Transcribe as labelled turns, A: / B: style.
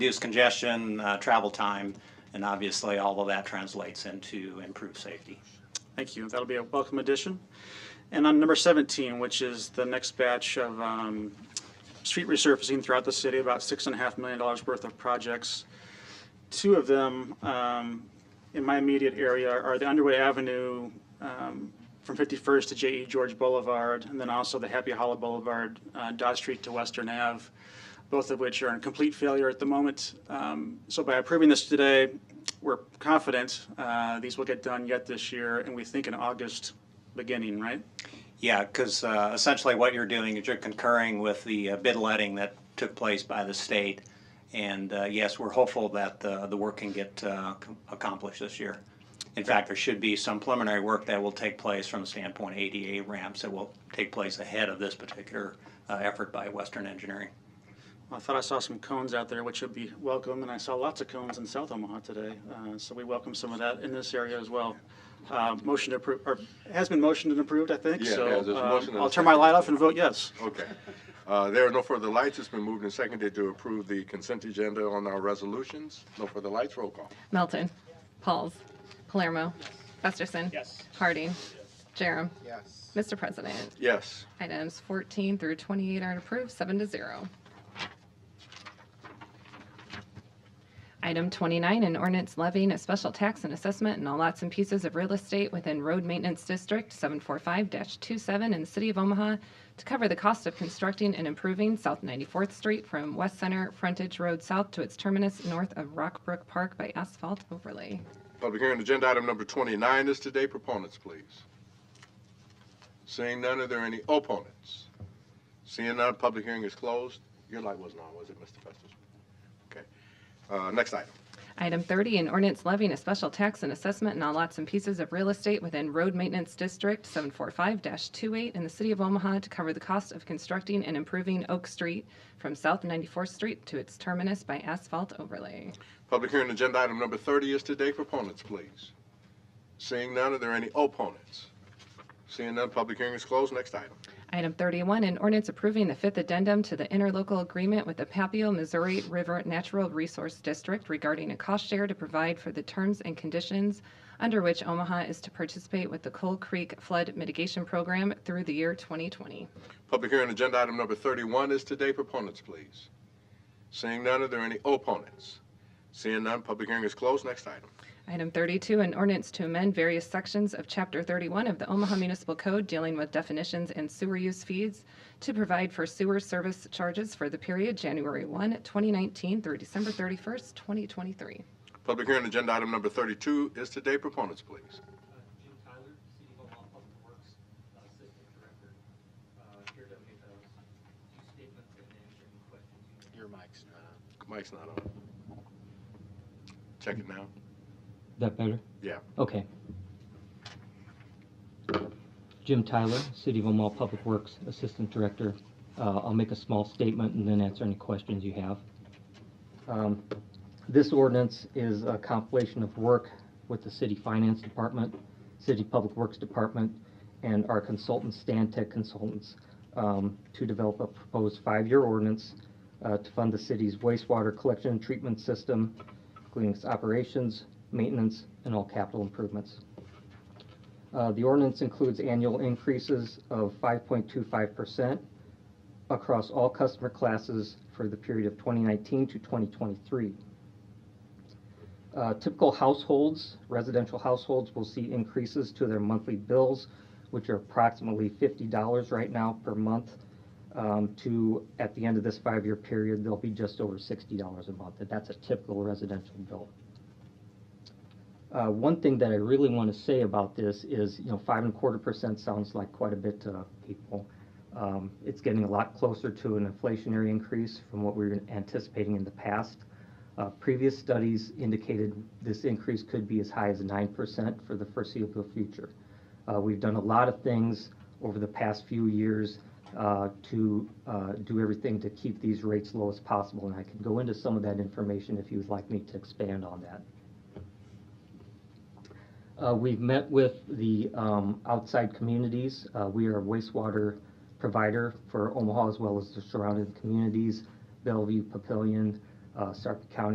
A: reduce congestion, uh, travel time, and obviously all of that translates into improved safety.
B: Thank you. That'll be a welcome addition. And on number 17, which is the next batch of um, street resurfacing throughout the city, about $6.5 million worth of projects. Two of them um, in my immediate area are the Underwood Avenue um, from 51st to J.E. George Boulevard, and then also the Happy Hollow Boulevard, uh, Dodge Street to Western Ave, both of which are in complete failure at the moment. Um, So by approving this today, we're confident uh, these will get done yet this year, and we think in August beginning, right?
A: Yeah, because essentially what you're doing is you're concurring with the uh, bid letting that took place by the state. And uh, yes, we're hopeful that uh, the work can get uh, com- accomplished this year. In fact, there should be some preliminary work that will take place from the standpoint of ADA ramps that will take place ahead of this particular uh, effort by Western Engineering.
B: I thought I saw some cones out there, which would be welcome, and I saw lots of cones in South Omaha today, uh, so we welcome some of that in this area as well. Uh, Motion to approve, or has been motioned and approved, I think,
C: Yeah,
B: so
C: yeah, there's a
B: um,
C: motion and a
B: I'll turn my
C: second.
B: light off and vote yes.
C: Okay. Uh, There are no further lights. It's been moved and seconded to approve the consent agenda on our resolutions. No further lights. Roll call.
D: Melton. Pauls. Palermo. Festerson.
A: Yes.
D: Harding. Jerem.
E: Yes.
D: Mr. President,
C: Yes.
D: items 14 through 28 are approved, seven to zero. Item 29, an ordinance levying a special tax and assessment on all lots and pieces of real estate within Road Maintenance District 745-27 in the City of Omaha to cover the cost of constructing and improving South 94th Street from West Center Frontage Road South to its terminus north of Rockbrook Park by asphalt overlay.
C: Public hearing on agenda item number 29 is today. Proponents, please. Seeing none, are there any opponents? Seeing none, public hearing is closed. Your light wasn't on, was it, Mr. Festus? Okay. Uh, Next item.
D: Item 30, an ordinance levying a special tax and assessment on all lots and pieces of real estate within Road Maintenance District 745-28 in the City of Omaha to cover the cost of constructing and improving Oak Street from South 94th Street to its terminus by asphalt overlay.
C: Public hearing on agenda item number 30 is today. Proponents, please. Seeing none, are there any opponents? Seeing none, public hearing is closed. Next item.
D: Item 31, an ordinance approving the fifth addendum to the interlocal agreement with the Papio Missouri River Natural Resource District regarding a cost share to provide for the terms and conditions under which Omaha is to participate with the Coal Creek Flood Mitigation Program through the year 2020.
C: Public hearing on agenda item number 31 is today. Proponents, please. Seeing none, are there any opponents? Seeing none, public hearing is closed. Next item.
D: Item 32, an ordinance to amend various sections of Chapter 31 of the Omaha Municipal Code dealing with definitions and sewer use fees to provide for sewer service charges for the period January 1, 2019 through December 31st, 2023.
C: Public hearing on agenda item number 32 is today. Proponents, please.
F: Jim Tyler, City of Omaha Public Works uh, Assistant Director, uh, here to make those two statements and answer any questions you may have.
E: Your mic's not
C: Mike's not on. Check it now.
G: That better?
C: Yeah.
G: Okay. Jim Tyler, City of Omaha Public Works Assistant Director. Uh, I'll make a small statement and then answer any questions you have. Um, This ordinance is a compilation of work with the City Finance Department, City Public Works Department, and our consultants, Stantec Consultants, um, to develop a proposed five-year ordinance uh, to fund the city's wastewater collection and treatment system, including its operations, maintenance, and all capital improvements. Uh, The ordinance includes annual increases of 5.25% across all customer classes for the period of 2019 to 2023. Uh, Typical households, residential households, will see increases to their monthly bills, which are approximately $50 right now per month, um, to, at the end of this five-year period, they'll be just over $60 a month. And that's a typical residential bill. Uh, One thing that I really want to say about this is, you know, five and a quarter percent sounds like quite a bit to people. Um, It's getting a lot closer to an inflationary increase from what we were anticipating in the past. Uh, Previous studies indicated this increase could be as high as nine percent for the foreseeable future. Uh, We've done a lot of things over the past few years uh, to uh, do everything to keep these rates low as possible, and I can go into some of that information if you would like me to expand on that. Uh, We've met with the um, outside communities. Uh, We are a wastewater provider for Omaha as well as the surrounding communities, Bellevue, Papillion, uh, Sark County